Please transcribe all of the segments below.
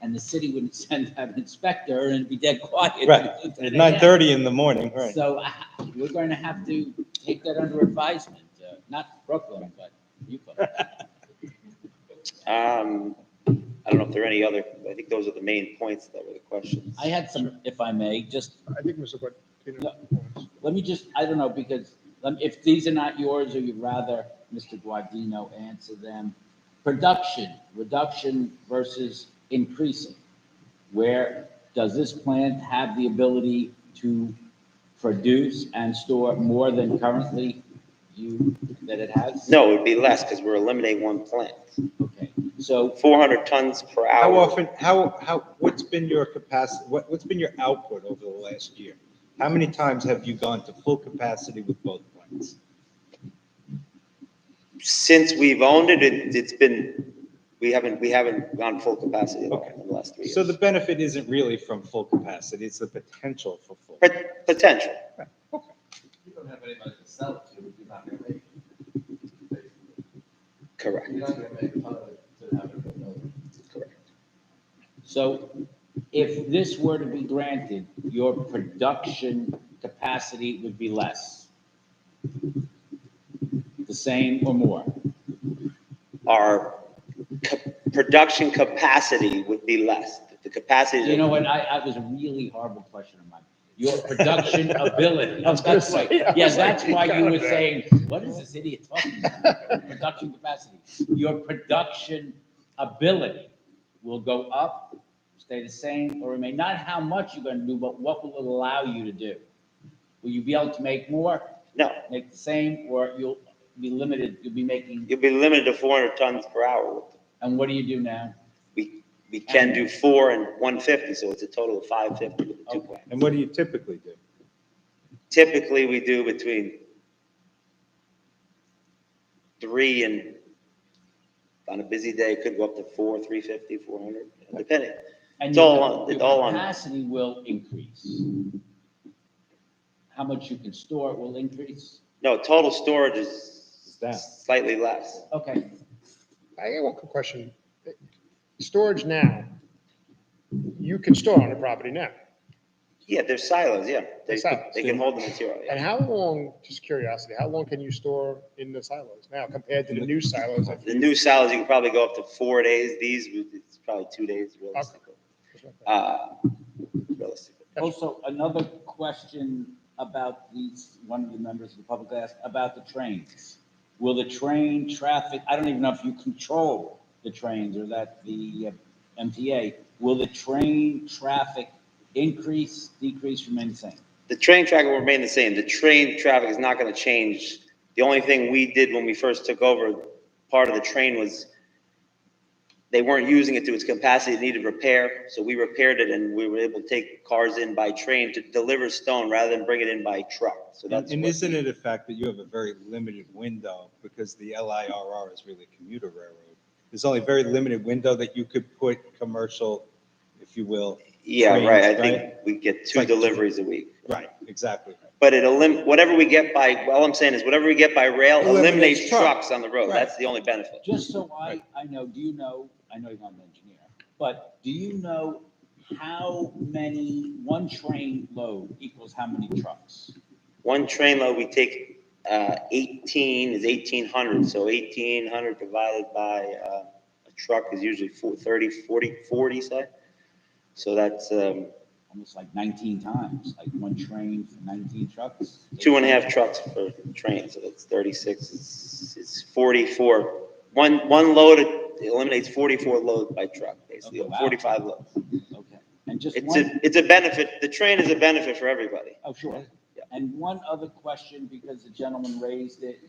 and the city wouldn't send an inspector and it'd be dead quiet. Right, at nine thirty in the morning, right? So uh, we're going to have to take that under advisement, uh, not Brooklyn, but you. folks. Um, I don't know if there are any other, I think those are the main points that were the questions. I had some, if I may, just I think Mr. But, Let me just, I don't know, because um, if these are not yours, or you'd rather Mr. Guardino answer them. Production, reduction versus increasing. Where does this plant have the ability to produce and store more than currently you, that it has? No, it would be less because we're eliminating one plant. Okay, so, Four hundred tons per How hour. often, how, how, what's been your capacity, what, what's been your output over the last year? How many times have you gone to full capacity with both plants? Since we've owned it, it, it's been, we haven't, we haven't gone full capacity at all Okay. in the last three years. So the benefit isn't really from full capacity, it's the potential for full. Pot- Potential. You don't have anybody to sell it to, you're not gonna make it. Correct. You're not gonna make a ton of it to have it. go nowhere. so if this were to be granted, your production capacity would be less? The same or more? Our ca- production capacity would be less. The capacity. You know what, I, I was a really horrible question of mine. Your production ability, I was gonna that's why, say, I yeah, was like, that's why you were God. saying, what is this idiot talking about? Production capacity, your production ability will go up, stay the same, or remain, not how much you're gonna do, but what will it allow you to do? Will you be able to make more, No, make the same, or you'll be limited, you'll be making, you'll be limited to four hundred tons per hour with and what do you do now? We, we can do four and one fifty, so it's a total of five fifty with the two plants. And what do you typically do? Typically, we do between three and, on a busy day, it could go up to four, three fifty, four hundred, depending. And It's your- all on- your it's all on- Capacity will increase. How much you can store will increase. No, total storage is down. slightly less. Okay, I got one quick question. Storage now, you can store on the property now. Yeah, they're silos, yeah. They, They're silos. they can hold the material, yeah. And how long, just curiosity, how long can you store in the silos now compared to the new silos? that The you- new silos, you can probably go up to four days. These, it's probably two days realistically. Uh, realistically. also, another question about these, one of the members of the public asked about the trains. Will the train traffic, I don't even know if you control the trains or that the uh, MTA, will the train traffic increase, decrease, remain the same? The train traffic will remain the same. The train traffic is not going to change. The only thing we did when we first took over, part of the train was they weren't using it to its capacity, it needed repair. So we repaired it and we were able to take cars in by train to deliver stone rather than bring it in by truck. So that's, And what- isn't it a fact that you have a very limited window because the LIRR is really commuter railroad? There's only a very limited window that you could put commercial, if you will. yeah, trains, right. I think right? we get two like- deliveries a week. Right, exactly. But it elim, whatever we get by, all I'm saying is whatever we get by rail Eliminates eliminates truck. trucks on the road. Right. That's the only benefit. Just so I, I know, do you know, I know you're not an engineer, but do you know how many, one train load equals how many trucks? One train load, we take uh, 18 is 1,800, so 1,800 divided by uh, a truck is usually four- 30, 40, 40, say. So that's um, Almost like nineteen times, like one train for nineteen trucks? two and a half trucks per train, so that's 36, it's it's 44. One, one load eliminates 44 loads by truck, basically, Oh, or wow. 45 loads. Okay, and just It's one, a, it's a benefit, the train is a benefit for everybody. oh, sure. Yeah. And one other question, because the gentleman raised it,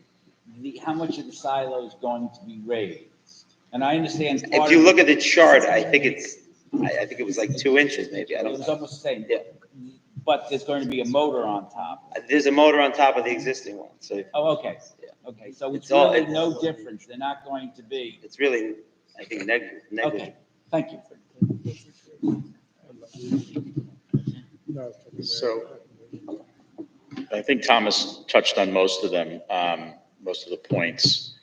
the, how much of the silo is going to be raised? And I understand part of. If you look at the chart, I think it's, I I think it was like two inches maybe, I It don't was know. almost the same. Yeah. But there's going to be a motor on top. There's a motor on top of the existing one, so Oh, okay, Yeah. okay, so it's It's all- really it's- no difference, they're not going to be, it's really, I think, neg- okay, negligible. thank you. So, I think Thomas touched on most of them, um, most of the points,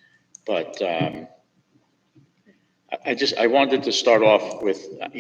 but, um, I, I just, I wanted to start off with,